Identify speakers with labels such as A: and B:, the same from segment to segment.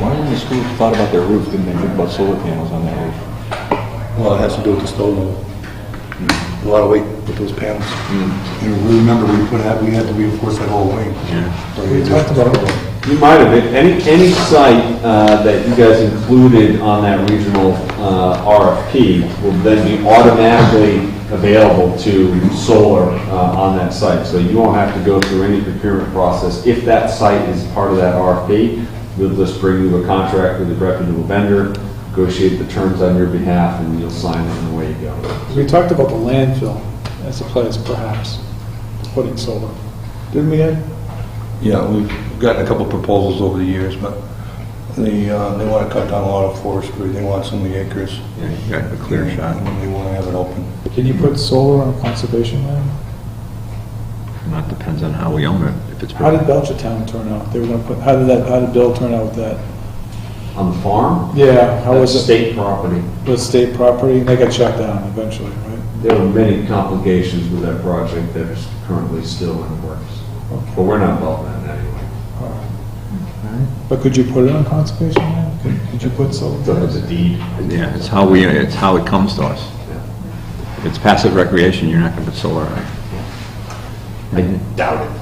A: Why when the school thought about their roof, didn't they think about solar panels on their roof?
B: Well, it has to do with the snow load. A lot of weight with those panels. And we Mm. remember, we put out, we had to reinforce that whole wing. We talked about it.
C: You might have, been- any, any site uh, that you guys included on that regional uh, RFP will then be automatically available to solar uh, on that site. So you won't have to go through any procurement process. If that site is part of that RFP, we'll just bring you a contract with a reputable vendor, negotiate the terms on your behalf, and you'll sign it and away you go.
D: We talked about the landfill as a place perhaps to put in solar. Didn't we, Ed?
B: Yeah, we've gotten a couple proposals over the years, but they, uh, they want to cut down a lot of forestry, they want so many acres.
A: Yeah, you got a clear shot.
B: And They want to have it open.
D: Can you put solar on conservation land?
A: That depends on how we own it, if it's.
D: How did Belchertown turn out? They were gonna put, how did that, how did Bill turn out with that?
C: On the farm,
D: Yeah, how
C: that's
D: was it?
C: state property.
D: Was state property, and they got shut down eventually, right?
C: There were many complications with that project that is currently still in the works, but we're not involved in that anyway.
D: But could you put it on conservation land? Could- Could you put solar?
C: So it's a deed.
A: Yeah, it's how we, it's how it comes to us. If it's passive recreation, you're not gonna put solar on it.
C: I doubt it.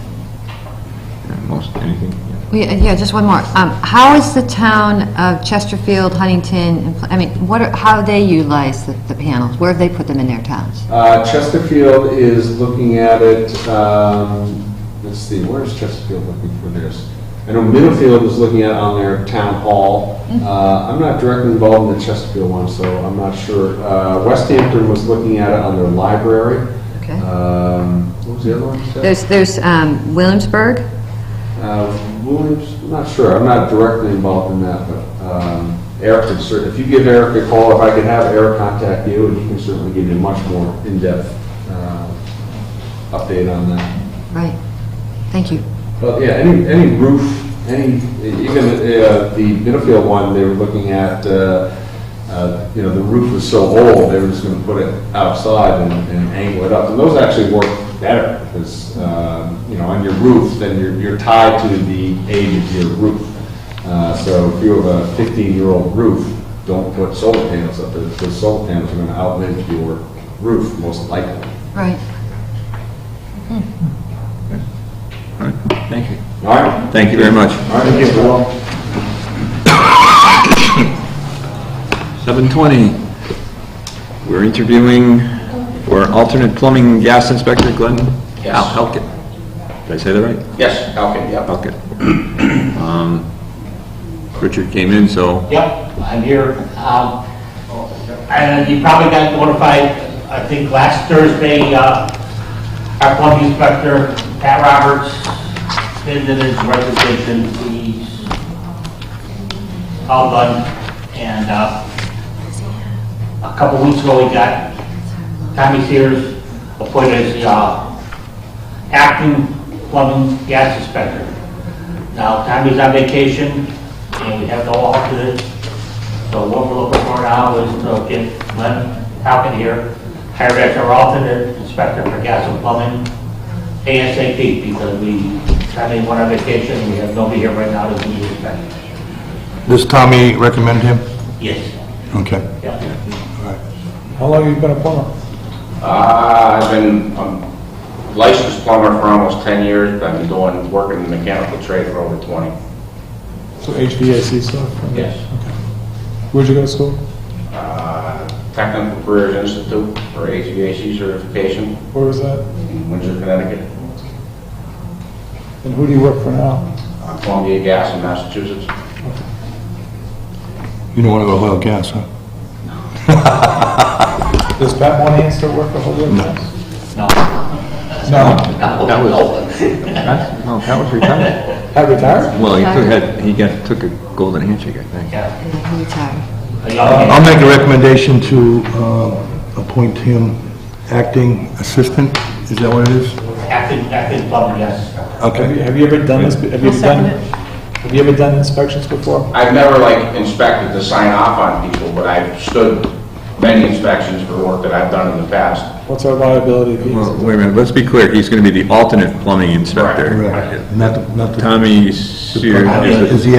A: Yeah, Most, anything, yeah.
E: We- uh, Yeah, just one more. Um, How is the town of Chesterfield, Huntington, and Pl- I mean, what, are- how they utilize the the panels? Where have they put them in their towns?
C: Uh, Chesterfield is looking at it, um, let's see, where is Chesterfield looking for theirs? I know Middlefield is looking at it on their town hall.
E: Mm-hmm.
C: Uh, I'm not directly involved in the Chesterfield one, so I'm not sure. Uh, West Hampton was looking at it on their library.
E: Okay.
C: Um, What was the other one? Seth?
E: There's, there's um, Williamsburg,
C: Uh, Williams, I'm not sure, I'm not directly involved in that, but um, Eric can certainly, if you give Eric a call, if I could have Eric contact you, and he can certainly give you a much more in-depth uh, update on that.
E: right. Thank you.
C: But yeah, any, any roof, any, even uh, the Middlefield one, they were looking at, uh, uh, you know, the roof was so old, they were just going to put it outside and and angle it up. And those actually work better, because, um, you know, on your roof, then you're you're tied to the age of your roof. Uh, So if you have a 15-year-old roof, don't put solar panels up there, because solar panels are going to outlive your roof most likely.
E: Right.
A: All right, Thank you.
C: All right?
A: Thank you very much.
C: All right, Mr. Wall.
A: 7:20, we're interviewing for alternate plumbing gas inspector, Glenn
F: Yes.
A: Al- Halkett. Did I say that right?
F: Yes, okay, yep.
A: Halkett. Um, Richard came in, so
F: Yep, I'm here. Um, And you probably got notified, I think, last Thursday, uh, our plumbing inspector, Pat Roberts, ended his resignation. He's all done. And uh, a couple weeks ago, we got Tommy Sears appointed as the uh, acting plumbing gas inspector. Now, Tommy's on vacation, and we have no alternate, so what we're looking for now is to get Glenn Halkin here, hired as our alternate inspector for gas and plumbing ASAP, because we, Tommy went on vacation, we have nobody here right now to be inspected.
B: Does Tommy recommend him?
F: Yes,
B: Okay.
F: yeah.
D: How long have you been a plumber?
G: Uh, I've been a licensed plumber for almost 10 years, but I've been doing, working in the mechanical trade for over 20.
D: So HVAC stuff?
F: Yes.
D: Okay. Where'd you go to school?
G: Uh, Technical Careers Institute for HVAC certification
D: Where was that?
G: in Windsor, Connecticut.
D: And who do you work for now?
G: Uh, Columbia Gas in Massachusetts.
B: You don't want to go oil gas, huh?
D: Does Pat Monahan still work for Holyoke Gas? No.
A: that was, that's- no, that was retired.
D: No? Pat retired?
A: Well, he took, had- he got, took a golden handshake, I think.
F: Yeah.
E: And then he retired.
F: A young man.
B: I'll make a recommendation to um, appoint him acting assistant, is that what it is?
F: Acting, acting plumber, yes.
D: Have you-
B: Okay.
D: Have you ever done this, have you ever done, have you ever done inspections before?
G: I've never like inspected to sign off on people, but I've stood many inspections for work that I've done in the past.
D: What's our liability? if he-
A: Well, wait a minute, let's be clear, he's going to be the alternate plumbing inspector.
B: Correct. Not the, not the.
A: Tommy Sears
B: Is he